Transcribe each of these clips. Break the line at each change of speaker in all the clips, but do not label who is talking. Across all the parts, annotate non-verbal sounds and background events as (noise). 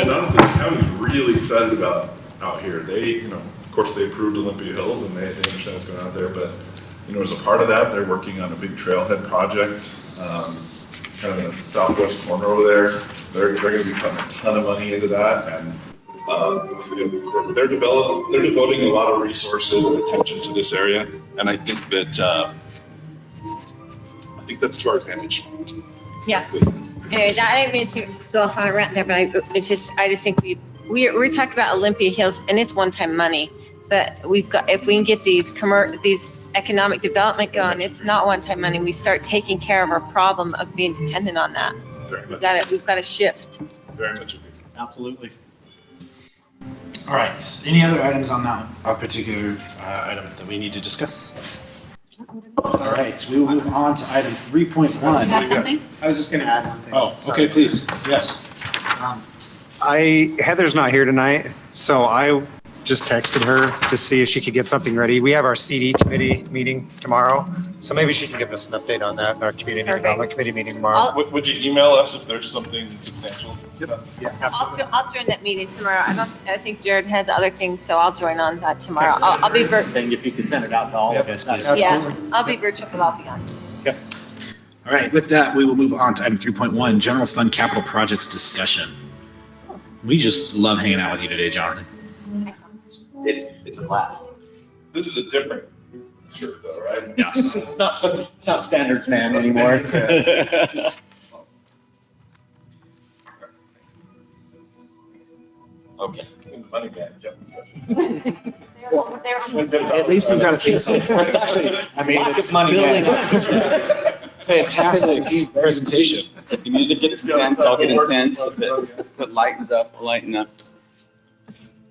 And honestly, the county's really excited about out here. They, you know, of course, they approved Olympia Hills and they, they understand what's going on out there, but, you know, as a part of that, they're working on a big trailhead project, um, kind of in the southwest corner over there. They're, they're gonna be putting a ton of money into that and, uh, they're develop, they're devoting a lot of resources and attention to this area. And I think that, uh, I think that's to our advantage.
Yeah. Anyway, that- I didn't mean to go off on a rant there, but I, it's just, I just think we, we're, we're talking about Olympia Hills and it's one-time money. But we've got, if we can get these commer, these economic development going, it's not one-time money. We start taking care of our problem of being dependent on that.
Very
We've
much,
got to, we've got to shift.
very much agree.
Absolutely. All right. s- Any other items on that a particular uh, item that we need to discuss? All right. We will move on to item three point one.
have something?
I was just going to add one thing.
Oh, okay.
Sorry.
Please. Yes.
Um,
I Heather's not here tonight, so I just texted her to see if she could get something ready. We have our CD committee meeting tomorrow, so maybe she can give us an update on that. Our community
Perfect.
development committee meeting
I'll-
tomorrow.
Would, would you email us if there's something substantial?
Yeah,
I'll,
absolutely.
jo- I'll join that meeting tomorrow. I don't, I think Jared has other things, so I'll join on that tomorrow. I'll, I'll be vir,
Thing if you could send it out to all of us. please.
yeah, I'll be virtual, but I'll be on.
All right. With that, we will move on to item three point one: general fund capital projects discussion. We just love hanging out with you today, Jonathan.
It's, it's a blast.
This is a different shirt though, right?
Yeah.
(laughs) It's not so.
(laughs) It's not standards man
anymore.
(laughs)
Okay.
Money man, yep.
At least we've got a few. Actually, (laughs) I mean, it's building up. (laughs) Fantastic presentation.
If the music gets intense, I'll get intense. If it, if it lightens up, I'll lighten up.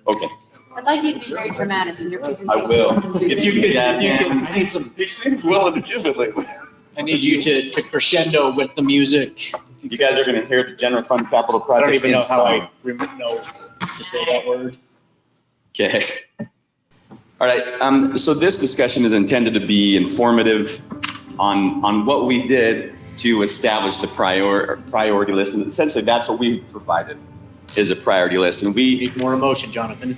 Okay,
I'd like you to be very dramatic in your presentation.
I will.
If
you could- if you could-
I need some,
He seems willing to give it lately.
I need you to, to crescendo with the music.
You guys are gonna hear the general fund capital
I don't
project.
even know how
in
I
song.
rem- know to say that word.
Okay. All right, um, so this discussion is intended to be informative on, on what we did to establish the prior, priority list. And essentially, that's what we provided, is a priority list. And
You
we,
need more emotion, Jonathan.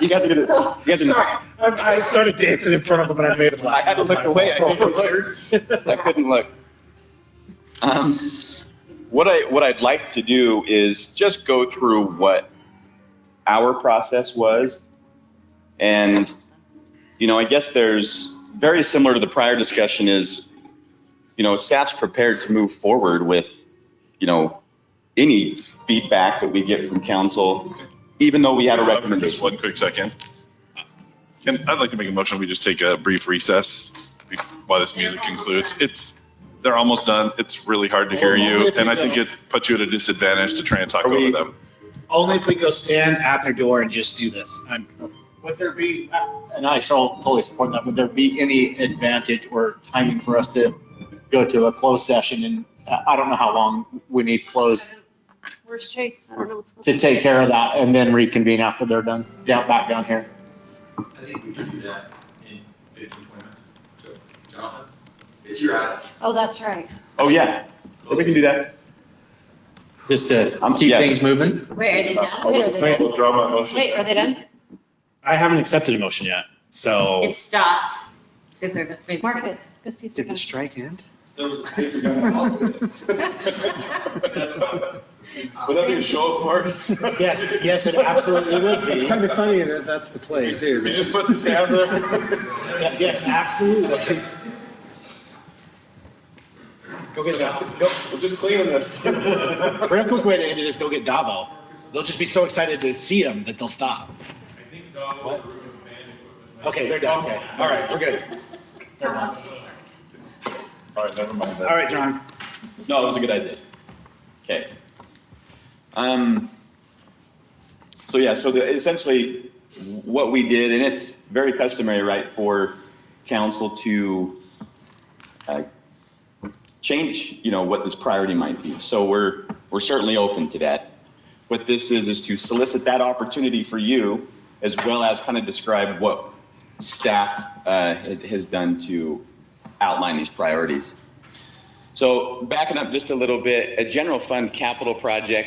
you guys are gonna, you guys are
sorry, I I started dancing in front of him and I made him laugh.
I had to look (laughs) away.
(laughs)
I couldn't look. I couldn't look. Um, what I what I'd like to do is just go through what our process was, and you know, I guess there's very similar to the prior discussion is, you know, staff's prepared to move forward with, you know, any feedback that we get from council, even though we had a
For Just
recommendation.
one quick second. And I'd like to make a motion, we just take a brief recess be- while this music concludes. It's, they're almost done. It's really hard to hear you, and I think it puts you at a disadvantage to try and talk
Are we-
over them.
Only if we go stand at their door and just do this. I'm,
Would there be, and I so totally support that, would there be any advantage or timing for us to go to a closed session? And I I don't know how long we need closed
Where's Chase? I don't know what's. going
to
on.
take care of that and then reconvene after they're done, down, back down here.
I think we can do that in 15, 20 minutes. So, Jonathan, it's your item.
Oh, that's right.
Oh, yeah, we can do that.
Just to
Um,
keep
yeah.
things moving.
Wait, are they done? Wait, are they done?
We'll draw my motion.
Wait, are they done?
I haven't accepted a motion yet, so.
It stopped. See if they're done. Wait,
Marcus,
go see if they're done.
strike end?
There was a paper gun.
(laughs)
Would that be a show of force?
Yes, yes, it absolutely would be.
of funny that that's the play
He
too.
just puts his hand there.
Yes, absolutely. Go get Davo. Go,
We're just cleaning this.
(laughs) real quick way to end it is go get Davo. They'll just be so excited to see him that they'll stop. I think Davo. Okay, they're done. Okay, all right, we're good.
All right, never mind
All
that.
right, John.
No, it was a good idea. Okay. Um, so yeah, so the, essentially what we did, and it's very customary, right, for council to uh, change, you know, what this priority might be. So we're, we're certainly open to that. What this is, is to solicit that opportunity for you, as well as kind of describe what staff uh, has done to outline these priorities. So backing up just a little bit, a general fund capital project